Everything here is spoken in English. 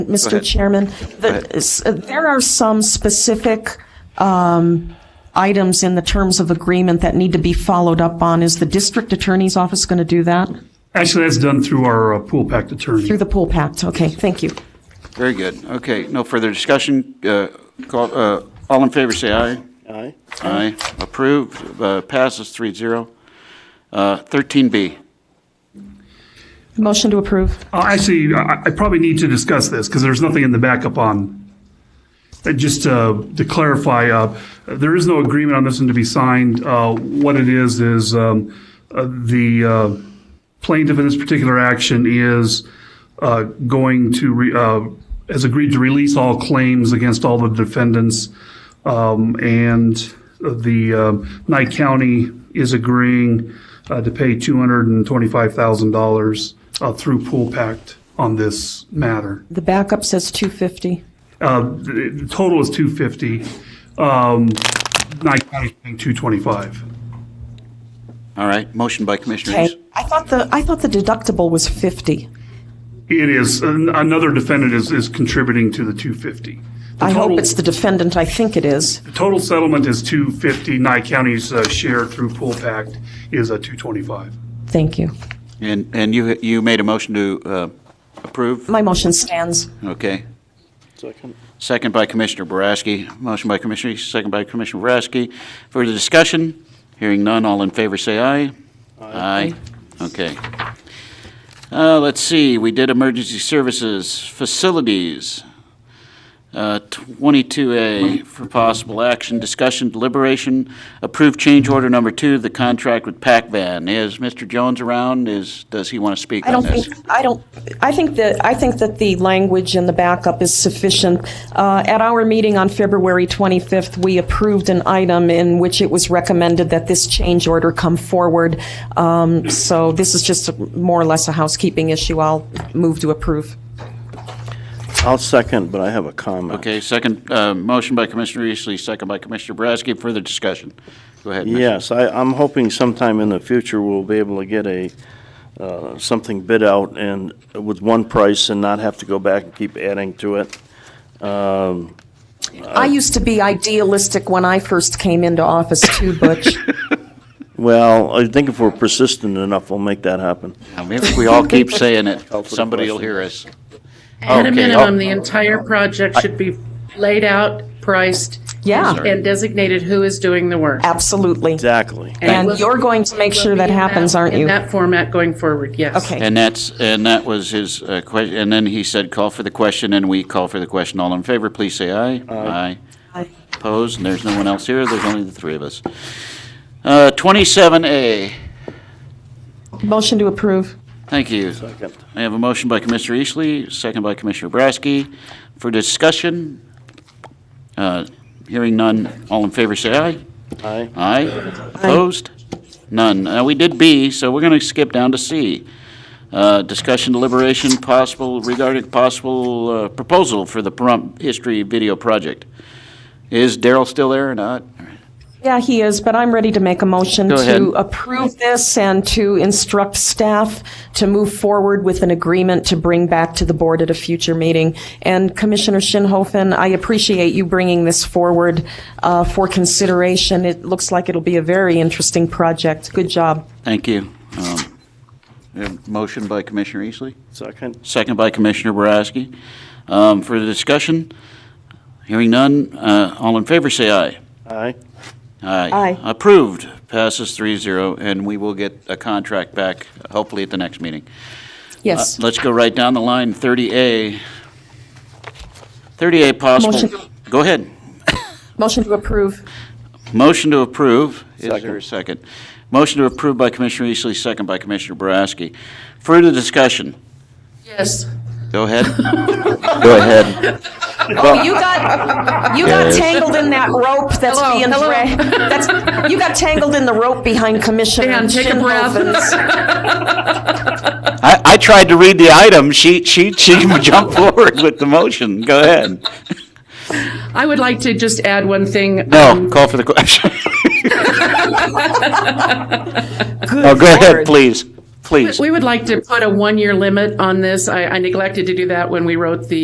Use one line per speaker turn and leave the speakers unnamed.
Mr.
ahead.
Chairman, the- s- uh, there are some specific um, items in the terms of agreement that need to be followed up on. Is the district attorney's office going to do that?
Actually, that's done through our uh, pool pact attorney.
Through the pool pact? Okay, thank you.
Very good. Okay, no further discussion. Uh, call- uh, All in favor, say aye.
Aye.
Aye. Approved, Uh, passes 3-0. Uh, 13B.
Motion to approve.
Uh, Actually, I I probably need to discuss this because there's nothing in the backup on. And just uh, to clarify, uh, there is no agreement on this one to be signed. Uh, What it is, is um, uh, the uh, plaintiff in this particular action is uh, going to, re- uh, has agreed to release all claims against all the defendants. Um, And the um, Knight County is agreeing uh, to pay $225,000 uh, through Pool Pact on this matter.
The backup says 250.
Uh, The the total is 250. um, Knight County's paying 225.
All right, motion by Commissioner
Okay.
East.
I thought the, I thought the deductible was 50.
It is, an- another defendant is, is contributing to the 250. The
I hope
total-
it's the defendant. I think it is.
Total settlement is 250. Nye County's uh, share through Pool Pact is uh, 225.
Thank you.
And, and you, you made a motion to uh, approve?
My motion stands.
Okay.
Second.
Second by Commissioner Boraski. Motion by Commissioner East, second by Commissioner Boraski. Further discussion? Hearing none, all in favor say aye. Aye. Okay. Uh, let's see, we did emergency services, facilities. Uh, 22A for possible action, discussion, deliberation, approve change order number two, the contract with Pac Van. Is Mr. Jones around? Is, does he want to speak
I
on
don't
this?
think, I don't, I think that, I think that the language in the backup is sufficient. Uh, At our meeting on February 25th, we approved an item in which it was recommended that this change order come forward. Um, So this is just a- more or less a housekeeping issue. I'll move to approve.
I'll second, but I have a comment.
Okay, second, uh, motion by Commissioner Eastley, second by Commissioner Boraski. Further discussion? Go ahead. Mr.
Yes, I, I'm hoping sometime in the future we'll be able to get a, uh, something bid out and with one price and not have to go back and keep adding to it.
I used to be idealistic when I first came into office too, Butch.
Well, I think if we're persistent enough, we'll make that happen.
Now, maybe If we all keep saying it,
Call for the
somebody will
question.
hear us.
At a
Okay. oh.
minimum, the entire project should be laid out, priced,
Yeah.
and designated who is doing the work.
Absolutely.
Exactly.
And you're going to make sure that happens, aren't
In
you?
that format going forward, yes.
Okay.
And that's, and that was his uh, question, and then he said, call for the question, and we call for the question. All in favor, please say aye. Aye.
Aye.
Opposed, and there's no one else here, there's only the three of us. Uh, 27A,
Motion to approve.
thank you.
Second.
I have a motion by Commissioner Eastley, second by Commissioner Boraski. For discussion, uh, hearing none, all in favor, say aye.
Aye.
Aye. Opposed? None. Uh, We did B, so we're going to skip down to C. Uh, Discussion deliberation possible regarding possible uh, proposal for the Pahrump History Video Project. Is Daryl still there or not?
Yeah, he is, but I'm ready to make a motion
Go ahead.
to approve this and to instruct staff to move forward with an agreement to bring back to the board at a future meeting. And Commissioner Shinhofen, I appreciate you bringing this forward uh, for consideration. It looks like it'll be a very interesting project. Good job.
Thank you. Um, we have a Motion by Commissioner Eastley,
Second.
second by Commissioner Boraski. Um, For the discussion, hearing none, uh, all in favor, say aye.
Aye.
Aye.
Aye.
Approved, passes 3-0, and we will get a contract back, hopefully at the next meeting. Uh,
Yes.
Let's go right down the line, 30A. 30A possible.
Motion.
Go ahead.
Motion to approve.
Motion to approve. Is there a
Second.
second? Motion to approve by Commissioner Eastley, second by Commissioner Boraski. Further discussion?
Yes.
Go ahead.
Go ahead.
Oh, you got, you got
Yes.
tangled in that rope that's
Hello,
being
hello.
dragged. That's- You got tangled in the rope behind Commissioner
Dan, take a breath.
Shinhofen's.
I, I tried to read the item. She, she, she jumped forward with the motion. Go ahead.
I would like to just add one thing.
No,
um,
call for the question. Oh, go ahead,
Lord.
please. Please.
We would like to put a one-year limit on this. I I neglected to do that when we wrote the